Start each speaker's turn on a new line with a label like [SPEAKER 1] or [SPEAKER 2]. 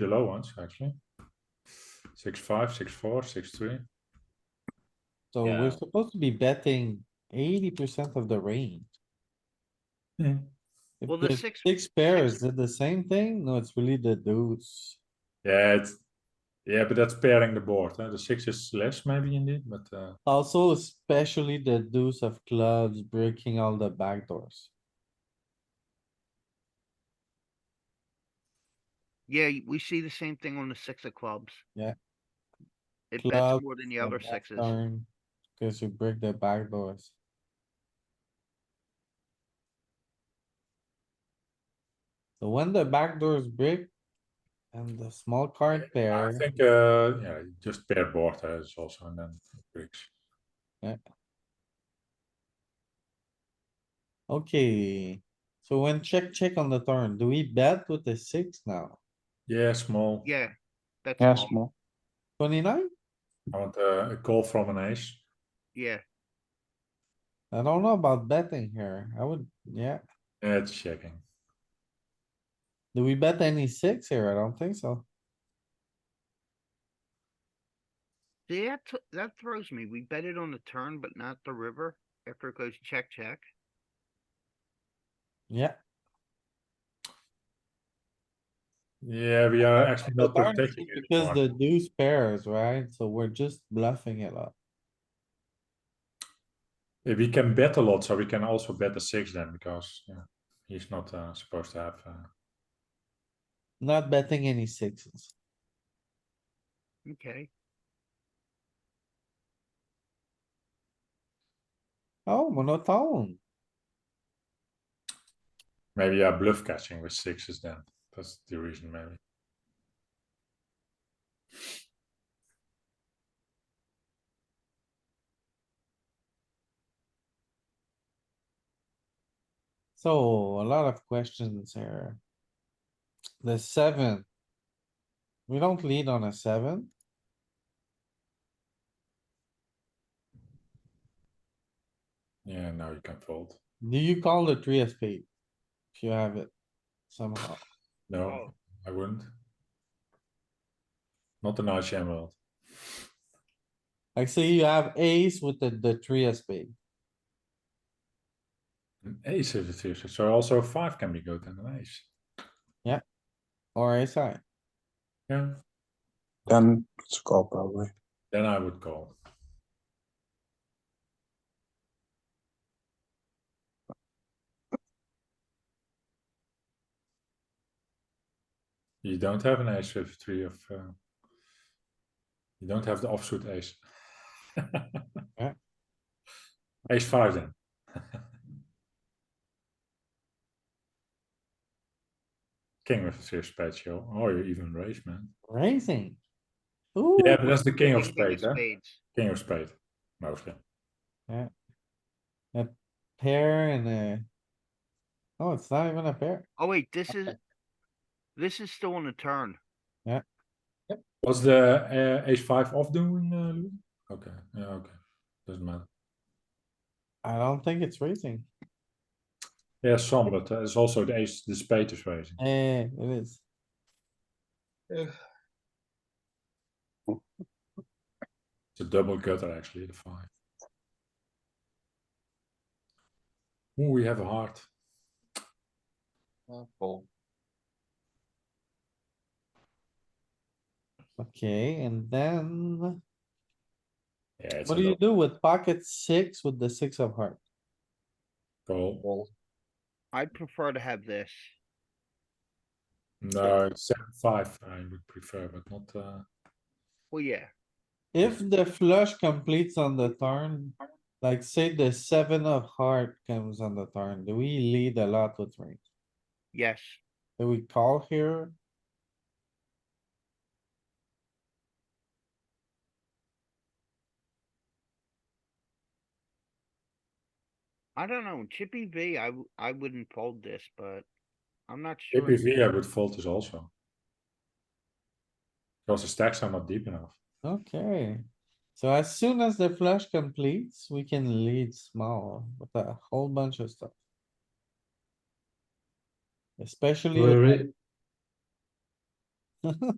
[SPEAKER 1] the low ones actually. Six five, six four, six three.
[SPEAKER 2] So we're
[SPEAKER 3] Yeah.
[SPEAKER 2] supposed to be betting eighty percent of the range.
[SPEAKER 1] Yeah.
[SPEAKER 2] If
[SPEAKER 4] Well, the
[SPEAKER 2] the
[SPEAKER 4] six-
[SPEAKER 2] Six pairs did the same thing? No, it's really the deuce.
[SPEAKER 1] Yeah, it's yeah, but that's pairing the board. Huh? The six is less maybe indeed, but uh,
[SPEAKER 2] Also especially the deuce of clubs breaking all the back doors.
[SPEAKER 4] Yeah, y- we see the same thing on the six of clubs.
[SPEAKER 2] Yeah.
[SPEAKER 4] It
[SPEAKER 2] Club,
[SPEAKER 4] bets more than the other sixes.
[SPEAKER 2] Cause you break the back doors. So when the back doors break and the small card
[SPEAKER 1] I
[SPEAKER 2] pair,
[SPEAKER 1] think uh, yeah, just pair board uh, is also and then bricks.
[SPEAKER 2] okay. So when check, check on the turn, do we bet with the six now?
[SPEAKER 1] Yeah, small.
[SPEAKER 4] Yeah. That's
[SPEAKER 5] Yeah,
[SPEAKER 4] small.
[SPEAKER 5] small.
[SPEAKER 2] Twenty-nine?
[SPEAKER 1] I want uh, a call from an ace.
[SPEAKER 4] Yeah,
[SPEAKER 2] I don't know about betting here. I would, yeah.
[SPEAKER 1] Yeah, it's checking.
[SPEAKER 2] Do we bet any six here? I don't think so.
[SPEAKER 4] See, that, t- that throws me. We bet it on the turn, but not the river after it goes check, check.
[SPEAKER 2] Yeah,
[SPEAKER 1] Yeah, we are Uh, actually
[SPEAKER 2] The
[SPEAKER 1] not
[SPEAKER 2] turn is
[SPEAKER 1] protecting it.
[SPEAKER 2] because the
[SPEAKER 1] anymore.
[SPEAKER 2] deuce pairs, right? So we're just bluffing it up.
[SPEAKER 1] Yeah, we can bet a lot, so we can also bet the six then because yeah, he's not uh, supposed to have. Uh,
[SPEAKER 2] Not betting any sixes.
[SPEAKER 4] Okay.
[SPEAKER 2] Oh, monotone.
[SPEAKER 1] maybe yeah, bluff catching with sixes then. That's the reason maybe.
[SPEAKER 2] So a lot of questions here. The seven. We don't lead on a seven.
[SPEAKER 1] Yeah, now you can fold.
[SPEAKER 2] Do you call the three of spade? If you have it somehow.
[SPEAKER 1] No,
[SPEAKER 4] Oh.
[SPEAKER 1] I wouldn't. Not an nice emerald.
[SPEAKER 2] Like say you have ace with the, the three of spade.
[SPEAKER 1] An ace is a three, so- so also a five can be good and an ace.
[SPEAKER 2] Or ace high.
[SPEAKER 1] Yeah,
[SPEAKER 5] Then it's a call probably.
[SPEAKER 1] then I would call. You don't have an ace with three of. Uh, you don't have the offsuit ace.
[SPEAKER 2] Yeah.
[SPEAKER 1] Ace five then. King with a three of spades, yo. Or you even raise, man.
[SPEAKER 2] Raising. Ooh,
[SPEAKER 1] Yeah, but that's the king of
[SPEAKER 4] King- king
[SPEAKER 1] spades, huh?
[SPEAKER 4] spades.
[SPEAKER 1] King of spade, mostly.
[SPEAKER 2] pair and a. Oh, it's not even a pair.
[SPEAKER 4] Oh, wait, this is, this is still on the turn.
[SPEAKER 1] Was the uh, ace five off doing, uh, Louis? Okay, yeah, okay, doesn't matter.
[SPEAKER 2] I don't think it's raising.
[SPEAKER 1] Yeah, some, but uh, it's also the ace, the spade is raising.
[SPEAKER 2] Eh, it is.
[SPEAKER 1] It's a double gutter actually, the five. Ooh, we have a heart.
[SPEAKER 2] Okay, and then
[SPEAKER 1] Yeah, it's a
[SPEAKER 2] what do you
[SPEAKER 1] double
[SPEAKER 2] do with pocket six with the six of heart?
[SPEAKER 1] call.
[SPEAKER 4] I'd prefer to have this.
[SPEAKER 1] No, it's seven, five, I would prefer, but not, uh,
[SPEAKER 4] Well, yeah,
[SPEAKER 2] If the flush completes on the turn, like say the seven of heart comes on the turn, do we lead a lot with range?
[SPEAKER 4] yes.
[SPEAKER 2] Do we call here?
[SPEAKER 4] I don't know, Chippy V, I, w- I wouldn't fold this, but I'm not sure.
[SPEAKER 1] APV, I would fold this also. Because the stacks are not deep enough.
[SPEAKER 2] Okay, so as soon as the flush completes, we can lead small with a whole bunch of stuff. Especially, with-